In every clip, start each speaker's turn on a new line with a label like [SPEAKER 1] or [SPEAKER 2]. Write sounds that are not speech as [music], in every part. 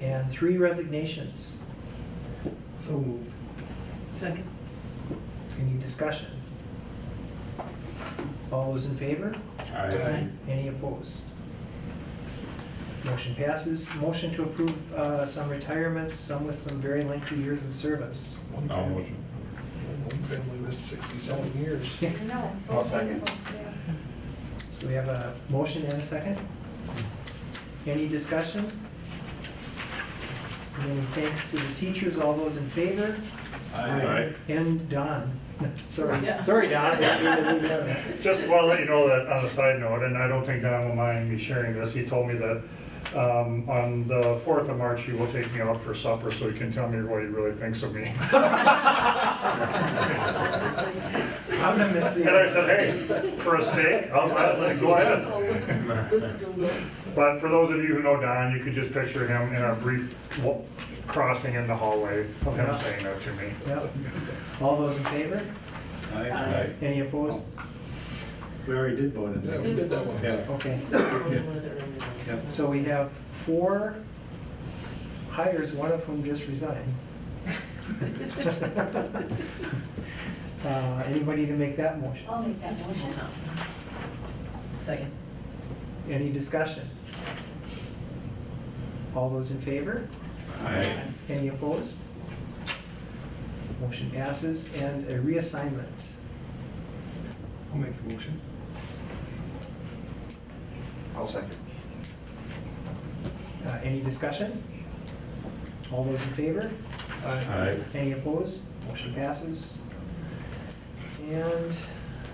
[SPEAKER 1] and three resignations.
[SPEAKER 2] So moved.
[SPEAKER 3] Second.
[SPEAKER 1] Any discussion? All those in favor?
[SPEAKER 3] Aye.
[SPEAKER 1] Any opposed? Motion passes. Motion to approve uh, some retirements, some with some very lengthy years of service.
[SPEAKER 2] One
[SPEAKER 4] I'll
[SPEAKER 2] fam-
[SPEAKER 4] motion.
[SPEAKER 2] One family with sixty-seven years.
[SPEAKER 1] Yeah.
[SPEAKER 5] No, it's
[SPEAKER 4] I'll
[SPEAKER 5] all
[SPEAKER 4] second.
[SPEAKER 5] wonderful, yeah.
[SPEAKER 1] So we have a motion and a second. Any discussion? Many thanks to the teachers, all those in favor?
[SPEAKER 4] Aye.
[SPEAKER 1] And Don. [laughs] Sorry,
[SPEAKER 3] Yeah.
[SPEAKER 1] sorry, Don.
[SPEAKER 6] Just want to let you know that on a side note, and I don't think Don will mind me sharing this, he told me that um, on the 4th of March, he will take me out for supper so he can tell me what he really thinks of me. [laughs]
[SPEAKER 1] I'm gonna miss you.
[SPEAKER 6] And I said, hey, for a steak, I'll gladly go ahead. But for those of you who know Don, you could just picture him in a brief wa- crossing in the hallway of him saying that to me.
[SPEAKER 1] Yep. All those in favor?
[SPEAKER 4] Aye.
[SPEAKER 1] Any opposed?
[SPEAKER 7] We already did vote on
[SPEAKER 2] Yeah,
[SPEAKER 7] that.
[SPEAKER 2] we did that one.
[SPEAKER 7] Yeah.
[SPEAKER 1] Okay.
[SPEAKER 7] Yeah.
[SPEAKER 1] So we have four hires, one of whom just resigned. Uh, Anybody to make that motion?
[SPEAKER 5] I'll make that motion.
[SPEAKER 3] Second.
[SPEAKER 1] Any discussion? All those in favor?
[SPEAKER 7] Aye.
[SPEAKER 1] Any opposed? Motion passes, and a reassignment.
[SPEAKER 2] I'll make the motion.
[SPEAKER 7] I'll second.
[SPEAKER 1] Uh, Any discussion? All those in favor?
[SPEAKER 7] Aye.
[SPEAKER 1] Any opposed? Motion passes. And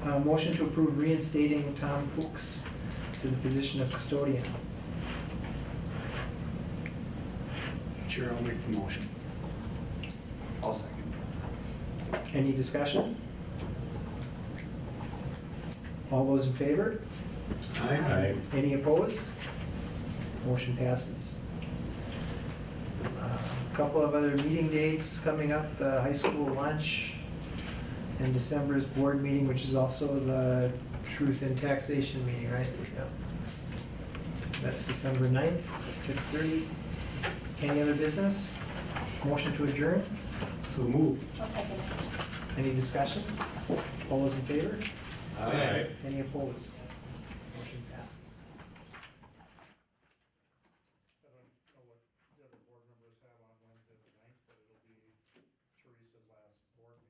[SPEAKER 1] uh, motion to approve reinstating Tom Fuchs to the position of custodian.
[SPEAKER 2] Chair, I'll make the motion.
[SPEAKER 7] I'll second.
[SPEAKER 1] Any discussion? All those in favor?
[SPEAKER 4] Aye.
[SPEAKER 1] Any opposed? Motion passes. A Couple of other meeting dates coming up, the high school lunch and December's board meeting, which is also the truth in taxation meeting, right? Yep. That's December 9th, 6:30. Any other business? Motion to adjourn?
[SPEAKER 2] So moved.
[SPEAKER 5] I'll second.
[SPEAKER 1] Any discussion? All those in favor?
[SPEAKER 4] Aye.
[SPEAKER 1] Any opposed? Motion passes.
[SPEAKER 6] The other board members have on Wednesday the ninth, but it'll be Teresa's last board meeting. [laughs]